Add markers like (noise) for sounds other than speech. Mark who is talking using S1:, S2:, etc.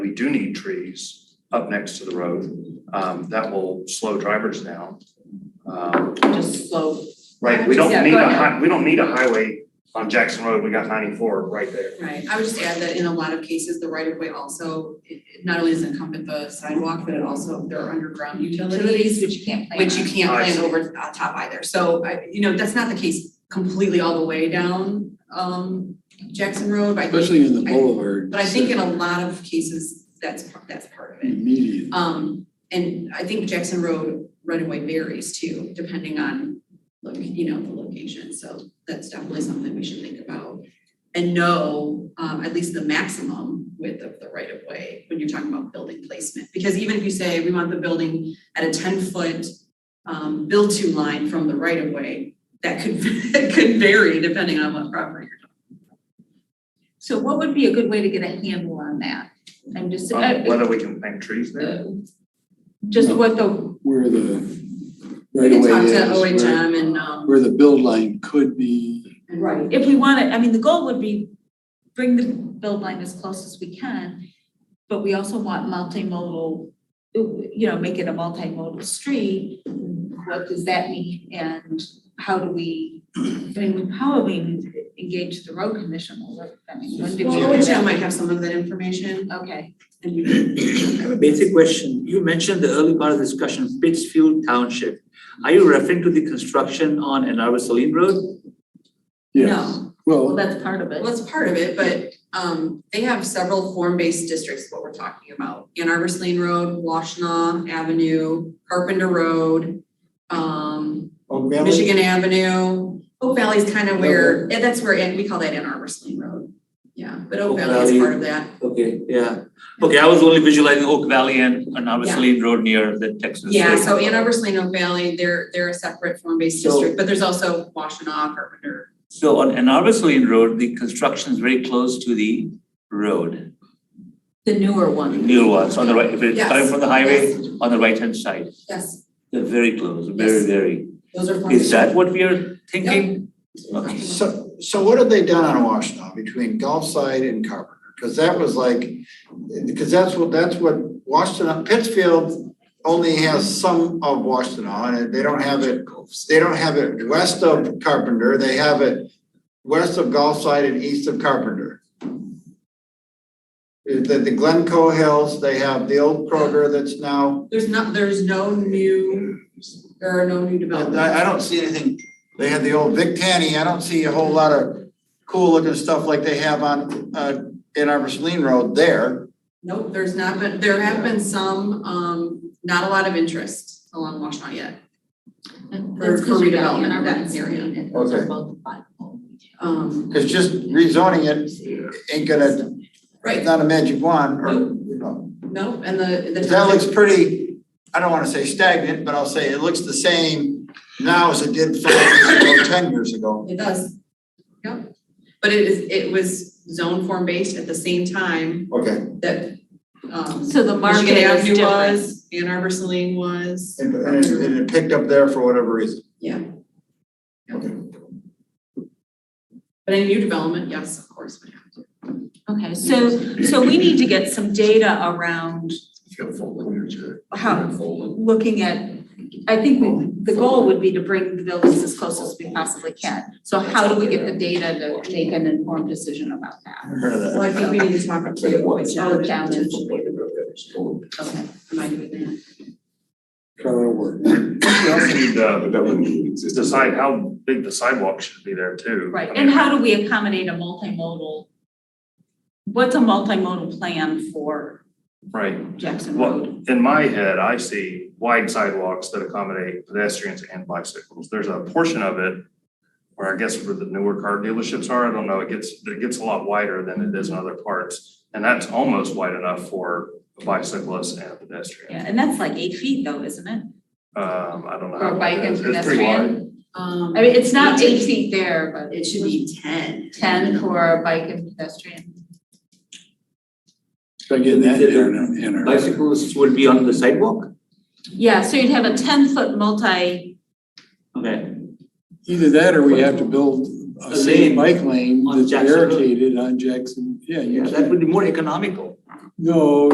S1: we do need trees up next to the road. Um, that will slow drivers down. Um,
S2: just slow,
S1: right, we don't
S2: Yeah,
S1: need
S2: go
S1: a
S2: ahead.
S1: hi- we don't need a highway on Jackson Road, we got ninety-four right there.
S2: right, I would just add that in a lot of cases, the right of way also, it it not only does it encompass the sidewalk, but it also, there are underground utilities.
S3: utilities, which you can't plan
S2: Which you
S3: on.
S2: can't
S1: I
S2: plan
S1: see.
S2: over on top either, so I, you know, that's not the case completely all the way down, um, Jackson Road, but I think,
S4: Especially in the boulevard.
S2: but I think in a lot of cases, that's, that's part of it.
S4: Immediate.
S2: Um, and I think Jackson Road right away varies too, depending on, look, you know, the location, so that's definitely something we should think about. And know, um, at least the maximum width of the right of way when you're talking about building placement, because even if you say we want the building at a ten foot. Um, build to line from the right of way, that could, (laughs) it could vary depending on what property you're
S3: So what would be a good way to get a handle on that? I'm just,
S1: Um,
S3: I-
S1: Whether we can plant trees there.
S3: uh, just what the,
S4: Where the right
S2: talking
S4: away
S2: about. We
S4: is,
S2: can talk to
S4: where,
S2: OHM and, um.
S4: where the build line could be.
S2: and-
S5: Right.
S3: if we want to, I mean, the goal would be bring the build line as close as we can, but we also want multimodal, you know, make it a multimodal street. What does that mean? And how do we, I mean, how do we engage the road commission? I mean, when do we?
S2: Well, OHM might have some of that information,
S3: Okay,
S2: and you can
S6: I have a basic question. You mentioned the early part of the discussion, Pittsfield Township. Are you referring to the construction on Anarva Saline Road?
S4: Yes.
S3: well,
S4: Well,
S3: that's part of it.
S2: Well, that's part of it, but um they have several form-based districts, what we're talking about. Ann Arbor Lane Road, Washington Avenue, Carpenter Road, um
S7: Oak Valley,
S2: Michigan Avenue. Oak Valley's kind of where, yeah, that's where, and we call that Ann Arbor Lane Road. Yeah, but Oak
S6: Oak
S2: Valley is
S6: Valley.
S2: part of that.
S6: Okay, yeah. Okay, I was only visualizing Oak Valley and Anarva Saline Road near the Texas.
S2: Yeah, so Ann Arbor Lane, Oak Valley, they're they're a separate form-based
S6: So-
S2: district, but there's also Washington, Carpenter.
S6: So on Anarva Saline Road, the construction is very close to the road,
S3: The newer
S6: the
S3: one.
S6: new ones on the right, if it's coming from the highway, on the right-hand side.
S2: Yes,
S6: They're very close, very,
S2: Yes.
S6: very.
S2: those are form-based.
S6: Is that what we are thinking? Okay.
S7: so, so what have they done on Washington between Gulfside and Carpenter? Cause that was like, because that's what, that's what Washington, Pittsfield only has some of Washington and they don't have it. They don't have it west of Carpenter, they have it west of Gulfside and east of Carpenter. The, the Glencoe Hills, they have the old Kroger that's now
S2: There's not, there's no new, there are no new developments.
S7: I, I don't see anything, they had the old Vic Tanny, I don't see a whole lot of cool looking stuff like they have on, uh, in Arbor Saline Road there.
S2: Nope, there's not been, there have been some, um, not a lot of interest along Washtenaw yet.
S3: That's
S2: For- for
S3: because we got
S2: redevelopment
S3: in
S2: of
S3: our
S2: that
S3: rights
S2: area.
S3: area, and those are
S7: Okay.
S3: both viable.
S2: Um,
S7: Cause just rezoning it ain't gonna,
S2: right,
S7: not a magic wand, or, you know.
S2: nope, and the, the
S7: That
S2: township,
S7: looks pretty, I don't wanna say stagnant, but I'll say it looks the same now as it did five years ago, ten years ago.
S2: it does. Yep, but it is, it was zone form based at the same time
S7: Okay,
S2: that, um,
S3: So the market
S2: Michigan
S3: is
S2: Avenue
S3: different.
S2: was, Ann Arbor Saline was.
S7: and, and it- and it picked up there for whatever reason.
S2: But any new development, yes, of course, would have to.
S3: Okay, so, so we need to get some data around how, looking at, I think we- the goal would be to bring the buildings as close as we possibly can. So how do we get the data to make an informed decision about that?
S7: Heard of that.
S2: Well, I think we need to talk to you.
S3: Oh, down in-
S2: Okay, am I doing that?
S4: trying to work.
S3: uh,
S1: We also need uh, to decide how big the sidewalk should be there too.
S3: Right,
S1: I
S3: and
S1: mean,
S3: how do we accommodate a multimodal? What's a multimodal plan for
S1: Right,
S3: Jackson Road?
S1: well, in my head, I see wide sidewalks that accommodate pedestrians and bicycles. There's a portion of it where I guess where the newer car dealerships are, I don't know, it gets, it gets a lot wider than it is in other parts. And that's almost wide enough for a bicyclist and a pedestrian.
S3: Yeah, and that's like eight feet though, isn't it?
S1: Um, I don't know.
S3: For
S1: how
S3: a
S1: wide
S3: bike
S1: it
S3: and
S1: is. It's pretty wide.
S3: pedestrian?
S2: Um.
S3: I mean, it's not eight feet there, but
S2: It should be ten.
S3: ten for a bike and pedestrian.
S4: Try getting that in, in our.
S6: Bicycles would be on the sidewalk?
S3: Yeah, so you'd have a ten foot multi,
S6: Okay,
S4: Either that or we have to build a
S6: A
S4: city
S6: lane
S4: bike lane
S6: on
S4: that's
S6: Jackson Road.
S4: barricaded on Jackson, yeah, you
S6: yeah, that
S4: can't,
S6: would be more economical.
S4: no,